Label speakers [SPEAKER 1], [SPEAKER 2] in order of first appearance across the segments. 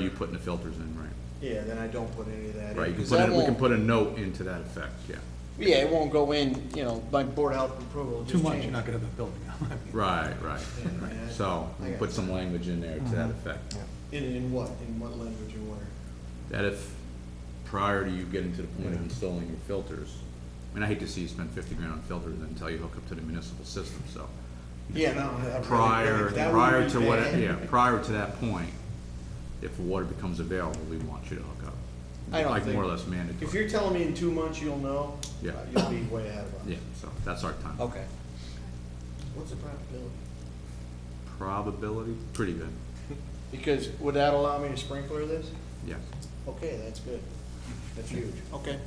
[SPEAKER 1] you putting the filters in, right?
[SPEAKER 2] Yeah, then I don't put any of that in.
[SPEAKER 1] Right, you can
[SPEAKER 2] 'cause
[SPEAKER 1] put,
[SPEAKER 2] that
[SPEAKER 1] in- we can
[SPEAKER 2] won't-
[SPEAKER 1] put a note into that effect, yeah.
[SPEAKER 2] Yeah, it won't go in, you know, by board health approval.
[SPEAKER 3] Too much, you're not gonna have a building.
[SPEAKER 1] Right, right,
[SPEAKER 2] Yeah,
[SPEAKER 1] right.
[SPEAKER 2] yeah.
[SPEAKER 1] So, we can put some language in there to that
[SPEAKER 2] Mm-hmm.
[SPEAKER 1] effect.
[SPEAKER 2] In, in what, in what language you want?
[SPEAKER 1] That if, prior to you getting to the point of installing your filters, I mean, I hate to see you spend fifty grand on filters until you hook up to the municipal system, so.
[SPEAKER 2] Yeah, no. I- I really-
[SPEAKER 1] Prior,
[SPEAKER 2] that would
[SPEAKER 1] prior
[SPEAKER 2] be
[SPEAKER 1] to what,
[SPEAKER 2] bad.
[SPEAKER 1] yeah, prior to that point, if water becomes available, we want you to hook up.
[SPEAKER 2] I don't
[SPEAKER 1] Like more or
[SPEAKER 2] think-
[SPEAKER 1] less mandatory.
[SPEAKER 2] If you're telling me in two months you'll know,
[SPEAKER 1] Yeah.
[SPEAKER 2] uh, you'll be way ahead of us.
[SPEAKER 1] Yeah, so that's our time.
[SPEAKER 2] Okay. What's the probability?
[SPEAKER 1] Probability, pretty good,
[SPEAKER 2] Because would that allow me to sprinkler this?
[SPEAKER 1] yes.
[SPEAKER 2] Okay, that's good. That's huge. Okay.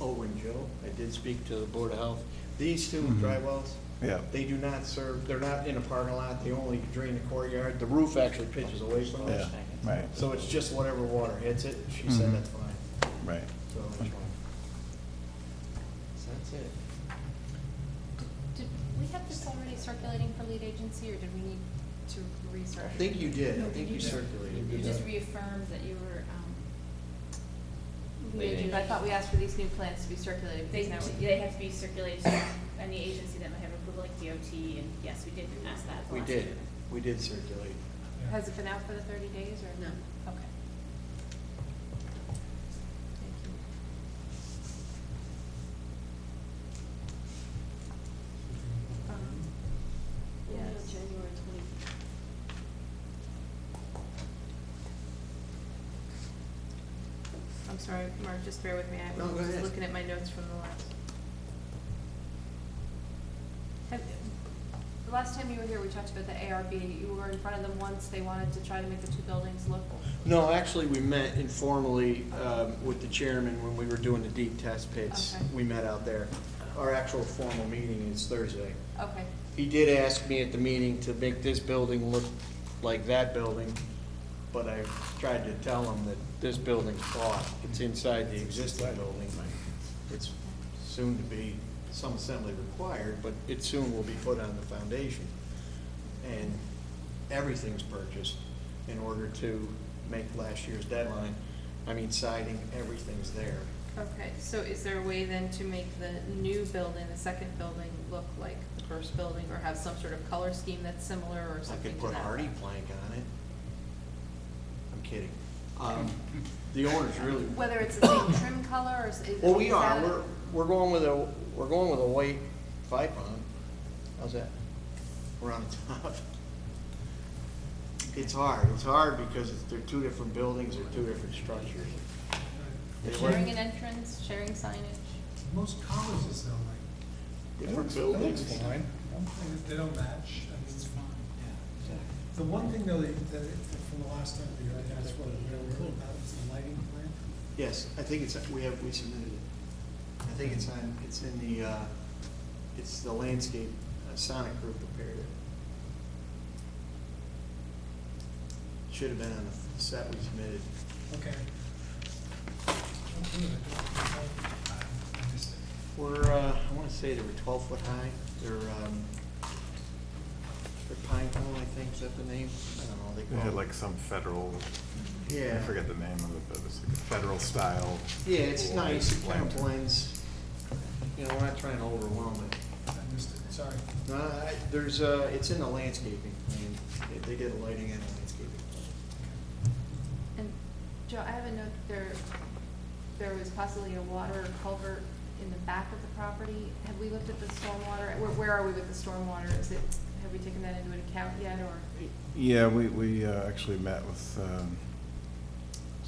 [SPEAKER 2] Oh, and Joe, I did speak to the Board of Health. These two dry wells,
[SPEAKER 4] Mm-hmm. Yeah.
[SPEAKER 2] they do not serve, they're not in a parking lot, they only drain the courtyard. The roof actually pitches away from
[SPEAKER 4] Yeah,
[SPEAKER 2] us.
[SPEAKER 4] right, Mm-hmm.
[SPEAKER 2] So it's just whatever water hits it. She said that's fine.
[SPEAKER 4] right.
[SPEAKER 2] So that's fine. So that's it.
[SPEAKER 5] Did we have this already circulating for lead agency, or did we need to research?
[SPEAKER 2] I think you did, I think you
[SPEAKER 5] You
[SPEAKER 2] circulated.
[SPEAKER 5] just reaffirmed that you were, um,
[SPEAKER 6] Lead
[SPEAKER 5] lead
[SPEAKER 6] agency.
[SPEAKER 5] but I thought we asked for these new plans to be circulated,
[SPEAKER 6] They,
[SPEAKER 5] because now we-
[SPEAKER 6] they have to be circulated to any agency that might have approval, like DOT, and yes, we did ask that. at the
[SPEAKER 2] We
[SPEAKER 6] last
[SPEAKER 2] did,
[SPEAKER 6] meeting.
[SPEAKER 2] we did circulate.
[SPEAKER 5] Has it been out for the thirty days, or?
[SPEAKER 6] No.
[SPEAKER 5] Okay. Thank you. Um, yes.
[SPEAKER 6] January twenty.
[SPEAKER 5] I'm sorry, Mark, just bear with me, I
[SPEAKER 2] No, go
[SPEAKER 5] was just
[SPEAKER 2] ahead.
[SPEAKER 5] looking at my notes from the last. Have- The last time you were here, we talked about the ARB, you were in front of them once, they wanted to try to make the two buildings look.
[SPEAKER 2] No, actually, we met informally um, with the chairman when we were doing the deep test pits.
[SPEAKER 5] Okay.
[SPEAKER 2] We met out there. Our actual formal meeting is Thursday.
[SPEAKER 5] Okay,
[SPEAKER 2] He did ask me at the meeting to make this building look like that building, but I tried to tell him that this building's bought. It's inside the existing building. It's soon to be, some assembly required, but it soon will be put on the foundation. And everything's purchased in order to make last year's deadline. I mean siding, everything's there.
[SPEAKER 5] okay, so is there a way then to make the new building, the second building, look like the first building, or have some sort of color scheme that's similar or
[SPEAKER 2] I
[SPEAKER 5] something
[SPEAKER 2] could
[SPEAKER 5] to
[SPEAKER 2] put
[SPEAKER 5] that?
[SPEAKER 2] hardy plank on it. I'm kidding. Um, The owner's really,
[SPEAKER 5] Whether it's the same trim color, or is is
[SPEAKER 2] well, we
[SPEAKER 5] is
[SPEAKER 2] are,
[SPEAKER 5] that a-
[SPEAKER 2] we're, we're going with a, we're going with a white pipe on. How's that? We're on top. It's hard, it's hard because it's- they're two different buildings, they're two different structures. They were
[SPEAKER 5] Sharing an entrance, sharing signage?
[SPEAKER 7] Most colleges though, like,
[SPEAKER 2] Different
[SPEAKER 7] that looks
[SPEAKER 2] buildings.
[SPEAKER 7] fine, And if they don't match, I mean, it's fine. The one thing though, that, that, from the last time we heard, that's what we were worried about, is the lighting plan.
[SPEAKER 2] Yes, I think it's, we have, we submitted it. I think it's on, it's in the, uh, it's the landscape, uh, Sonic Group prepared it. Should have been on the set we submitted.
[SPEAKER 7] Okay. Okay, I don't- I missed it.
[SPEAKER 2] We're, uh, I wanna say they were twelve foot high, they're, um, they're pine cone, I think, is that the name? I don't know, they
[SPEAKER 4] They
[SPEAKER 2] call
[SPEAKER 4] had
[SPEAKER 2] it.
[SPEAKER 4] like some federal, I
[SPEAKER 2] Yeah.
[SPEAKER 4] forget the name of it, but it was like a federal style.
[SPEAKER 2] Yeah, it's
[SPEAKER 4] wall
[SPEAKER 2] nice, it kinda
[SPEAKER 4] lantern.
[SPEAKER 2] blends, you know, we're not trying to overwhelm it.
[SPEAKER 7] I missed it, sorry.
[SPEAKER 2] No, I- there's, uh, it's in the landscaping plan. They- They did a lighting and a landscaping plan.
[SPEAKER 5] And Joe, I have a note that there, there was possibly a water culvert in the back of the property. Have we looked at the stormwater? Where, where are we with the stormwater? Is it, have we taken that into account yet, or?
[SPEAKER 4] Yeah, we, we uh, actually met with um,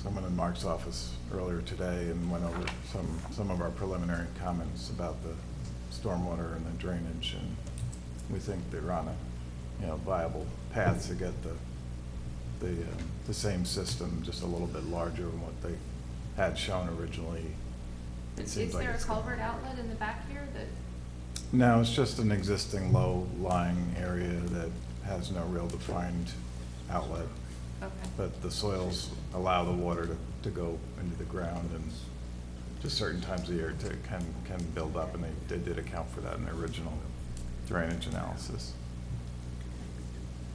[SPEAKER 4] someone in Mark's office earlier today and went over some, some of our preliminary comments about the stormwater and the drainage, and we think they're on a, you know, viable path to get the, the, uh, the same system, just a little bit larger than what they had shown originally. It
[SPEAKER 5] Is
[SPEAKER 4] seems like
[SPEAKER 5] there a
[SPEAKER 4] it's gonna-
[SPEAKER 5] culvert outlet in the back here that,
[SPEAKER 4] no, it's just an existing low-lying area that has no real defined outlet,
[SPEAKER 5] okay,
[SPEAKER 4] but the soils allow the water to, to go into the ground and just certain times of year to, can, can build up, and they, they did account for that in their original drainage analysis.